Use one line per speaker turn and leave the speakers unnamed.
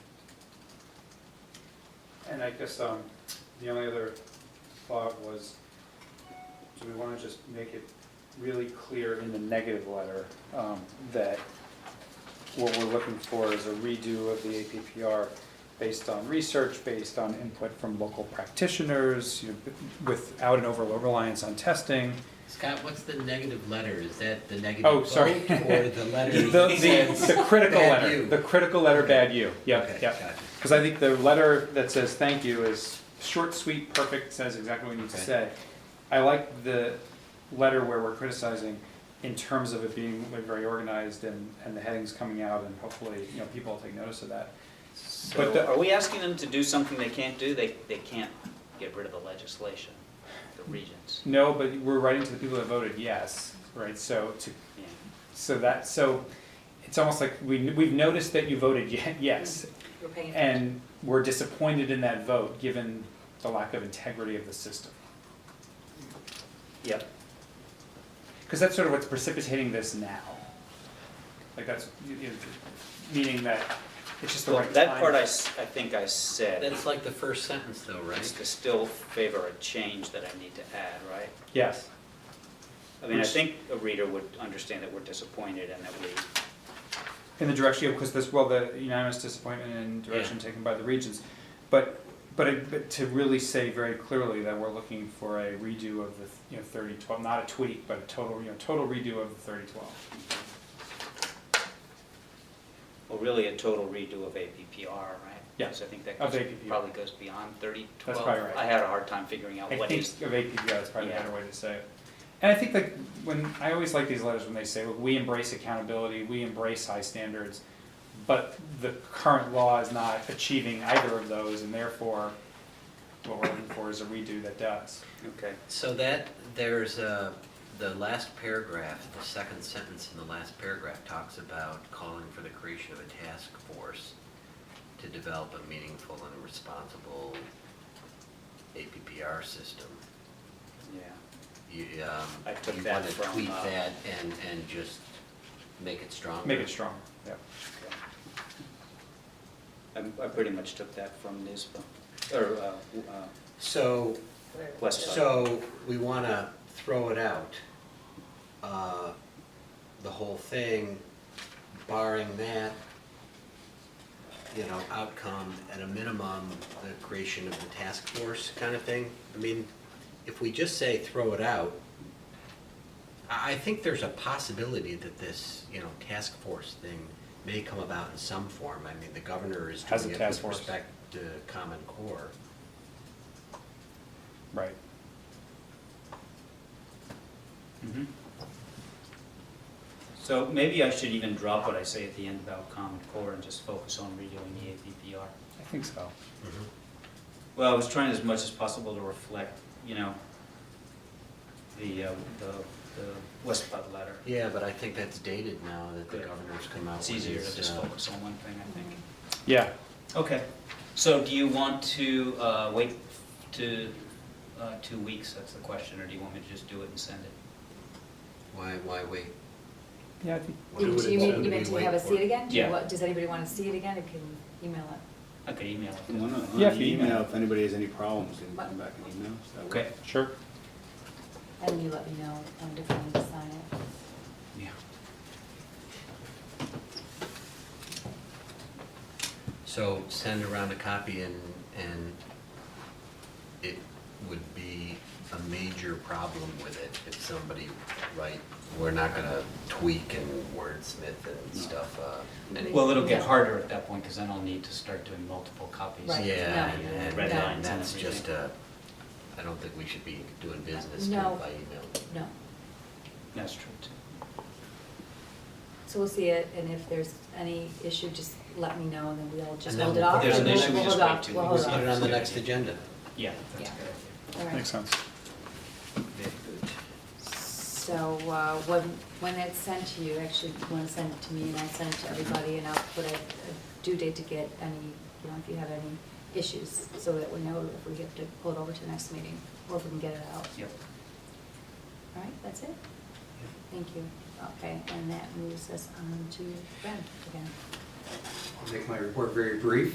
And I guess um, the only other thought was, do we want to just make it really clear in the negative letter um, that what we're looking for is a redo of the APPR based on research, based on input from local practitioners, you know, without an over reliance on testing?
Scott, what's the negative letter? Is that the negative
Oh, sorry.
vote or the letter?
The, the, the critical
Bad
letter,
you.
the critical letter, bad you, yeah,
Okay,
yeah.
gotcha.
Because I think the letter that says thank you is short, sweet, perfect, says exactly what we need to
Okay.
say. I like the letter where we're criticizing in terms of it being like, very organized and, and the headings coming out and hopefully, you know, people will take notice of that. But the-
So are we asking them to do something they can't do? They, they can't get rid of the legislation, the regents.
No, but we're writing to the people that voted yes, right? So to,
Yeah.
so that, so it's almost like we, we've noticed that you voted ye- yes.
We're paying attention.
And we're disappointed in that vote, given the lack of integrity of the system.
Yep.
Because that's sort of what's precipitating this now. Like that's, you- you- meaning that it's just the
Well,
right time.
that part I, s- I think I said.
That's like the first sentence though,
It's
right?
to still favor a change that I need to add, right?
Yes,
I mean, I
Which-
think a reader would understand that we're disappointed and that we,
in the direction, of because this, well, the unanimous disappointment and direction taken by the regions. But, but it- but to really say very clearly that we're looking for a redo of the, you know, thirty twelve, not a tweak, but a total, you know, total redo of the thirty twelve.
well, really a total redo of APPR, right?
Yeah,
Because I think that
of
goes-
APPR.
probably goes beyond thirty twelve.
That's probably right.
I had a hard time figuring out
I
what
think
is,
of APPR is probably a
Yeah.
better way to say it. And I think that when, I always like these letters when they say, look, we embrace accountability, we embrace high standards, but the current law is not achieving either of those, and therefore, what we're looking for is a redo that does.
okay.
So that, there's a, the last paragraph, the second sentence in the last paragraph talks about calling for the creation of a task force to develop a meaningful and responsible APPR system.
Yeah,
You, um,
I took
you
that
wanna
from,
tweak
uh,
that and, and just make it stronger.
Make it stronger, yeah.
okay. I, I pretty much took that from NISBA, or, uh, w- uh,
So
West Side.
So we want to throw it out, uh, the whole thing, barring that, you know, outcome, at a minimum, the creation of the task force kind of thing. I mean, if we just say throw it out, I, I think there's a possibility that this, you know, task force thing may come about in some form. I mean, the governor is
Has a
doing it
task
with
force.
respect to Common Core.
Right.
Mhm. So maybe I should even drop what I say at the end about Common Core and just focus on redoing the APPR.
I think so.
Well, I was trying as much as possible to reflect, you know, the, uh, the, the West Bud letter.
Yeah, but I think that's dated now that the
Yeah.
governor's come out with
It's easier to
his,
just
uh,
focus on one thing, I think.
Yeah,
Okay, so do you want to uh, wait to, uh, two weeks, that's the question, or do you want me to just do it and send it?
Why, why wait?
yeah, I think,
What
You
would it
you mean,
sound
you
to be
meant to have
wait
us see
for?
it again?
Yeah.
What- Does anybody want to see it again? You can email it.
I could email it.
Well, no, on
Yeah, if you
email,
email.
if anybody has any problems, they can come back and email us. That
Okay,
works.
sure.
And then you let me know um, if you want to sign it.
yeah.
So send around a copy and, and it would be a major problem with it if somebody, right, we're not gonna tweak and wordsmith and stuff, uh, any.
Well, it'll get
Yeah.
harder at that point, because then I'll need to start doing multiple copies.
Right.
Yeah,
no,
and,
red lines
and
and
that's
everything.
just a, I don't think we should be doing business by
No.
email.
No.
That's true, too.
So we'll see it, and if there's any issue, just let me know, and then we'll just
And then
hold it off.
if there's
and
an
we'll-
issue,
we'll
just
hold off.
wait two
We'll
weeks.
We'll
hold
put it on
off.
the next agenda.
Yeah, that's a good
Yeah.
idea.
All right.
Makes sense.
Very good.
So uh, when, when it's sent to you, actually, you want to send it to me, and I send it to everybody, and I'll put a a due date to get any, you know, if you have any issues, so that we know if we have to pull it over to the next meeting, or if we can get it out.
Yep.
All right, that's it? Thank you. Okay, and that moves us on to Ben again.
I'll make my report very brief.